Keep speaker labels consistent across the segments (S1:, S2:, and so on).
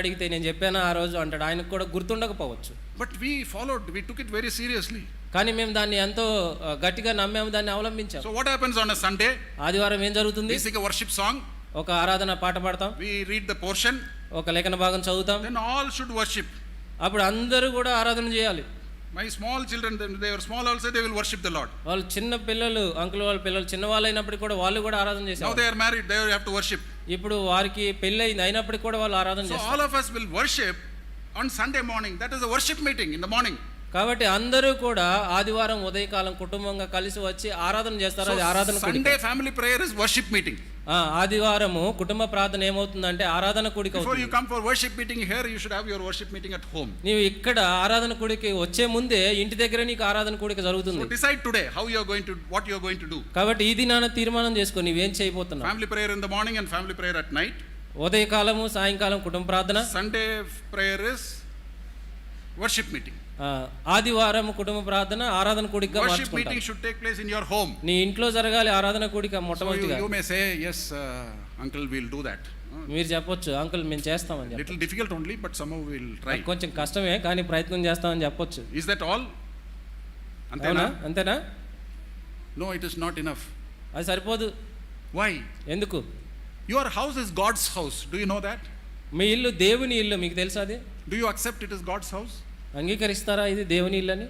S1: అడిగితే నేను చెప్పాను ఆ రోజు అంటాడు ఆయనకు కూడా గుర్తుండకపోవచ్చు
S2: But we followed, we took it very seriously.
S1: కానీ మేము దాన్ని ఎంతో ఆ, గట్టిగా నమ్మాము దాన్ని అవలంబించాం
S2: So, what happens on a Sunday?
S1: ఆదివారం ఏం జరుగుతుంది
S2: We sing a worship song,
S1: ఒక ఆరాధన పాట పాడతాం
S2: we read the portion,
S1: ఒక లేఖన భాగం చదువుతాం
S2: then all should worship.
S1: అప్పుడు అందరూ కూడా ఆరాధన చేయాలి
S2: My small children, then they were small also, they will worship the Lord.
S1: వాళ్ళు చిన్న పిల్లలు అంకుల్ వాళ్ళ పిల్లలు చిన్న వాళ్ళు అయినప్పటికీ కూడా వాళ్ళు కూడా ఆరాధన
S2: Now
S1: చేసేవాళ్ళు
S2: they are married, they will have to worship.
S1: ఇప్పుడు వారికి పెళ్ళి అయింది అయినప్పటికీ కూడా వాళ్ళు ఆరాధన
S2: So,
S1: చేస్తారు
S2: all of us will worship on Sunday morning. That is a worship meeting in the morning.
S1: కాబట్టి అందరూ కూడా ఆదివారం ఉదయకాలం కుటుంబంగా కలిసి వచ్చి ఆరాధన చేస్తారు అది
S2: So,
S1: ఆరాధన కూడిక
S2: Sunday family prayer is worship meeting.
S1: ఆ, ఆదివారము కుటుంబ ప్రార్థన ఏమవుతుందంటే ఆరాధన కూడిక
S2: Before
S1: అవుతుంది
S2: you come for worship meeting here, you should have your worship meeting at home.
S1: నీవు ఇక్కడ ఆరాధన కూడికి వచ్చే ముందే ఇంటి దగ్గర నీకు ఆరాధన కూడిక
S2: So,
S1: జరుగుతుంది
S2: decide today how you are going to, what you are going to do.
S1: కాబట్టి ఇది నాన్న తీర్మానం చేసుకో నీవేం చేయబోతున్నావు
S2: Family prayer in the morning and family prayer at night.
S1: ఉదయకాలము సాయంకాలం కుటుంబ ప్రార్థన
S2: Sunday f- prayer is worship meeting.
S1: ఆ, ఆదివారం కుటుంబ ప్రార్థన ఆరాధన కూడికగా
S2: Worship meeting
S1: మార్చుకుంటాం
S2: should take place in your home.
S1: నీ ఇంట్లో జరగాలి ఆరాధన కూడిక
S2: So you,
S1: మొట్టమొదటిగా
S2: you may say, yes, uh, uncle, we'll do that. Uh,
S1: మీరు చెప్పొచ్చు అంకుల్ మేము చేస్తామని చెప్పి
S2: Little difficult only, but somehow we'll try.
S1: కొంచెం కష్టమే కానీ ప్రయత్నం చేస్తామని చెప్పొచ్చు
S2: Is that all?
S1: అవునా
S2: Antena?
S1: అంతేనా
S2: No, it is not enough.
S1: అది సరిపోదు
S2: Why?
S1: ఎందుకు
S2: Your house is God's house. Do you know that?
S1: మీ ఇల్లు దేవుని ఇల్లు మీకు తెలుసా అది
S2: Do you accept it is God's house
S1: అంగీకరిస్తారా ఇది దేవుని ఇల్లు అని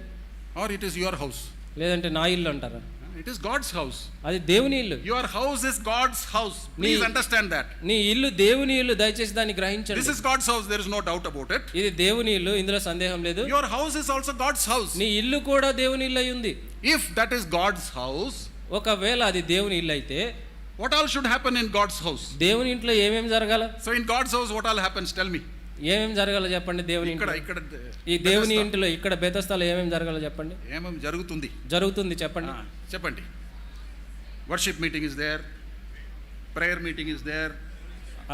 S2: or it is your house?
S1: లేదంటే నా ఇల్లు అంటారా
S2: Uh, It is God's house.
S1: అది దేవుని ఇల్లు
S2: Your house is God's house. Please
S1: Nee.
S2: understand that.
S1: నీ ఇల్లు దేవుని ఇల్లు దయచేసి దాన్ని
S2: This
S1: గ్రహించండి
S2: is God's house. There is no doubt about it.
S1: ఇది దేవుని ఇల్లు ఇందులో సందేహం లేదు
S2: Your house is also God's house.
S1: నీ ఇల్లు కూడా దేవుని ఇల్లు అయి ఉంది
S2: If that is God's house,
S1: ఒకవేళ అది దేవుని ఇల్లు అయితే
S2: what all should happen in God's house?
S1: దేవుని ఇంట్లో ఏమేమి జరగాల
S2: So in God's house, what all happens? Tell me.
S1: ఏమేమి జరగాలో చెప్పండి దేవుని
S2: ఇక్కడ
S1: ఇంట్లో
S2: ఇక్కడ
S1: ఈ దేవుని ఇంట్లో ఇక్కడ బెతస్థలో ఏమేమి జరగాలో చెప్పండి
S2: ఏమేమి జరుగుతుంది
S1: జరుగుతుంది చెప్పండి
S2: Ah, చెప్పండి worship meeting is there prayer meeting is there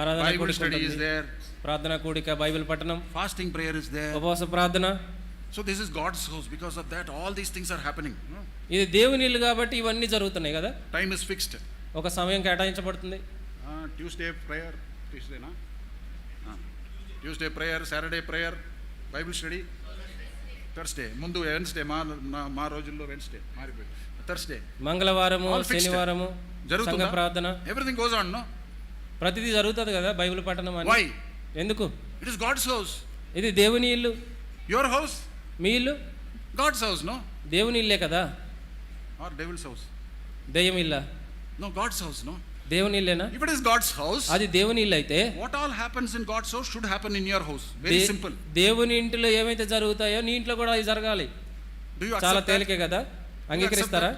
S1: ఆరాధన
S2: బైబుల్
S1: కూడిక
S2: స్టడీ ఇస్
S1: ఉంటుంది.
S2: దేర్
S1: ప్రార్థన కూడిక బైబిల్ పఠనం
S2: ఫాస్టింగ్ ప్రేయర్ ఇస్ దేర్
S1: ఉపవాస ప్రార్థన
S2: so this is God's house because of that all these things are happening
S1: ఇది దేవుని ఇల్లు కాబట్టి ఇవన్నీ జరుగుతున్నాయి కదా
S2: టైమ్ ఇస్ ఫిక్స్డ్
S1: ఒక సమయం కేటాయించబడుతుంది
S2: ట్యూస్డే ప్రేయర్ ట్యూస్డేనా Tuesday prayer Saturday prayer Bible study Thursday ముందు వెన్స్డే మా నా- మా రోజుల్లో వెన్స్డే మారిపోయింది థర్స్డే
S1: మంగళవారము
S2: All fixed.
S1: శనివారము సంఘ
S2: జరుగుతుందా?
S1: ప్రార్థన
S2: ఎవ్రీథింగ్ గోజ్ ఆన్ నో
S1: ప్రతిదీ జరుగుతుంది కదా బైబిల్ పఠనం
S2: వై
S1: అని ఎందుకు
S2: ఇట్ ఇస్ గాడ్స్ హౌస్
S1: ఇది దేవుని ఇల్లు
S2: యువర్ హౌస్
S1: మీ ఇల్లు
S2: గాడ్స్ హౌస్ నో
S1: దేవుని ఇల్లే కదా
S2: ఆర్ డెవిల్స్ హౌస్
S1: దెయ్యం ఇల్ల
S2: నో గాడ్స్ హౌస్ నో
S1: దేవుని ఇల్లేనా
S2: if it is God's house
S1: అది దేవుని ఇల్లు అయితే
S2: what all happens in God's house should happen in your house very
S1: దే-
S2: సింపుల్
S1: దేవుని ఇంటిలో ఏమైతే జరుగుతాయో నీ ఇంట్లో కూడా అవి జరగాలి
S2: డూ యూ
S1: చాలా
S2: అక్సెప్ట్
S1: తేలికే కదా అంగీకరిస్తారా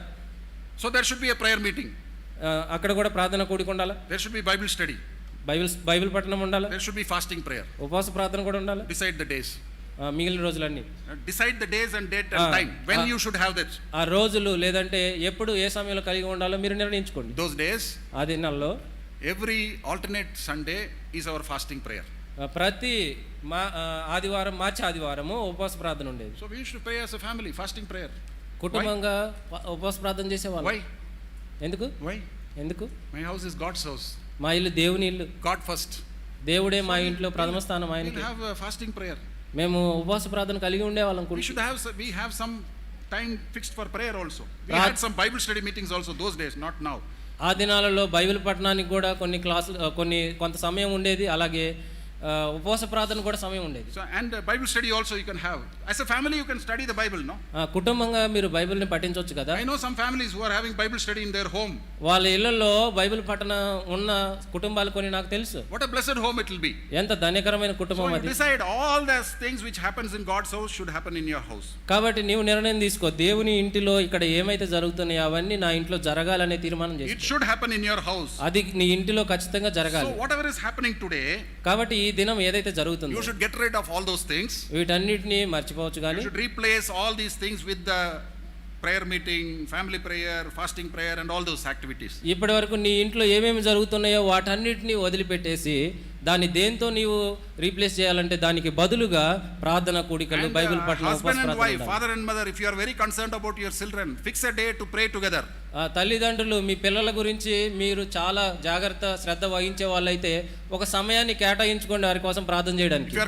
S2: so there should be a prayer meeting
S1: ఆ, అక్కడ కూడా ప్రార్థన కూడికి ఉండాలా
S2: there should be Bible study
S1: Bible Bible పఠనం ఉండాలా
S2: there should be fasting prayer
S1: ఉపవాస ప్రార్థన కూడా ఉండాలా
S2: డిసైడ్ ద డేస్
S1: ఆ, మిగిలిన రోజులన్నీ
S2: decide the days and date
S1: Ah,
S2: and time when
S1: ah.
S2: You should have that
S1: ఆ రోజులు లేదంటే ఎప్పుడు ఏ సమయంలో కలిగి ఉండాలో మీరు నిర్ణయించుకోండి
S2: దోస్ డేస్
S1: ఆ దినాల్లో
S2: every alternate Sunday is our fasting prayer
S1: ఆ, ప్రతి మా ఆ, ఆదివారం మార్చి ఆదివారము ఉపవాస ప్రార్థన ఉండేది
S2: so we should pray as a family fasting prayer
S1: కుటుంబంగా ప- ఉపవాస ప్రార్థన చేసేవాళ్ళు
S2: వై
S1: ఎందుకు
S2: వై
S1: ఎందుకు
S2: my house is God's house
S1: మా ఇల్లు దేవుని ఇల్లు
S2: గాడ్ ఫస్ట్
S1: దేవుడే మా ఇంట్లో ప్రథమ స్థానం
S2: వీల్
S1: ఆయనకి
S2: హ్యావ్ ఫాస్టింగ్ ప్రేయర్
S1: మేము ఉపవాస ప్రార్థన కలిగి ఉండేవాళ్ళం
S2: వీ
S1: కూర్చు
S2: should have we have some time fixed for prayer also we
S1: Right.
S2: Had some Bible study meetings also those days not now
S1: ఆ దినాలలో బైబిల్ పఠనానికి కూడా కొన్ని క్లాసులు ఆ, కొన్ని కొంత సమయం ఉండేది అలాగే ఆ, ఉపవాస ప్రార్థన కూడా సమయం ఉండేది
S2: so and Bible study also you can have as a family you can study the Bible no
S1: ఆ, కుటుంబంగా మీరు బైబిల్ని పఠించవచ్చు కదా
S2: I know some families who are having Bible study in their home
S1: వాళ్ళ ఇళ్లలో బైబిల్ పఠన ఉన్న కుటుంబాలు కొన్ని నాకు తెలుసు
S2: what a blessed home it will be
S1: ఎంత ధన్యకరమైన
S2: So
S1: కుటుంబం
S2: you
S1: అది
S2: decide all those things which happens in God's house should happen in your house.
S1: కాబట్టి నీవు నిర్ణయం తీసుకో దేవుని ఇంటిలో ఇక్కడ ఏమైతే జరుగుతున్నాయో అవన్నీ నా ఇంట్లో జరగాలనే తీర్మానం చేసి
S2: It should happen in your house.
S1: అది నీ ఇంటిలో ఖచ్చితంగా
S2: So
S1: జరగాలి
S2: whatever is happening today,
S1: కాబట్టి ఈ దినం ఏదైతే జరుగుతుందో
S2: you should get rid of all those things.
S1: వీటన్నిటిని మర్చిపోవచ్చు
S2: You
S1: కానీ
S2: should replace all these things with the prayer meeting, family prayer, fasting prayer and all those activities.
S1: ఇప్పటి వరకు నీ ఇంట్లో ఏమేమి జరుగుతున్నాయో వాటన్నిటిని వదిలిపెట్టేసి దాన్ని దేంతో నీవు రీప్లేస్ చేయాలంటే దానికి బదులుగా ప్రార్థన కూడికలు
S2: And,
S1: బైబిల్
S2: uh,
S1: పట్ల ఉపవాస
S2: husband and
S1: ప్రార్థన
S2: wife,
S1: ఉండాలి.
S2: father and mother, if you are very concerned about your children, fix a day to pray together.
S1: ఆ, తల్లిదండ్రులు మీ పిల్లల గురించి మీరు చాలా జాగ్రత్త శ్రద్ధ వహించే వాళ్ళైతే ఒక సమయాన్ని కేటాయించుకోండి వారి కోసం ప్రార్థన చేయడానికి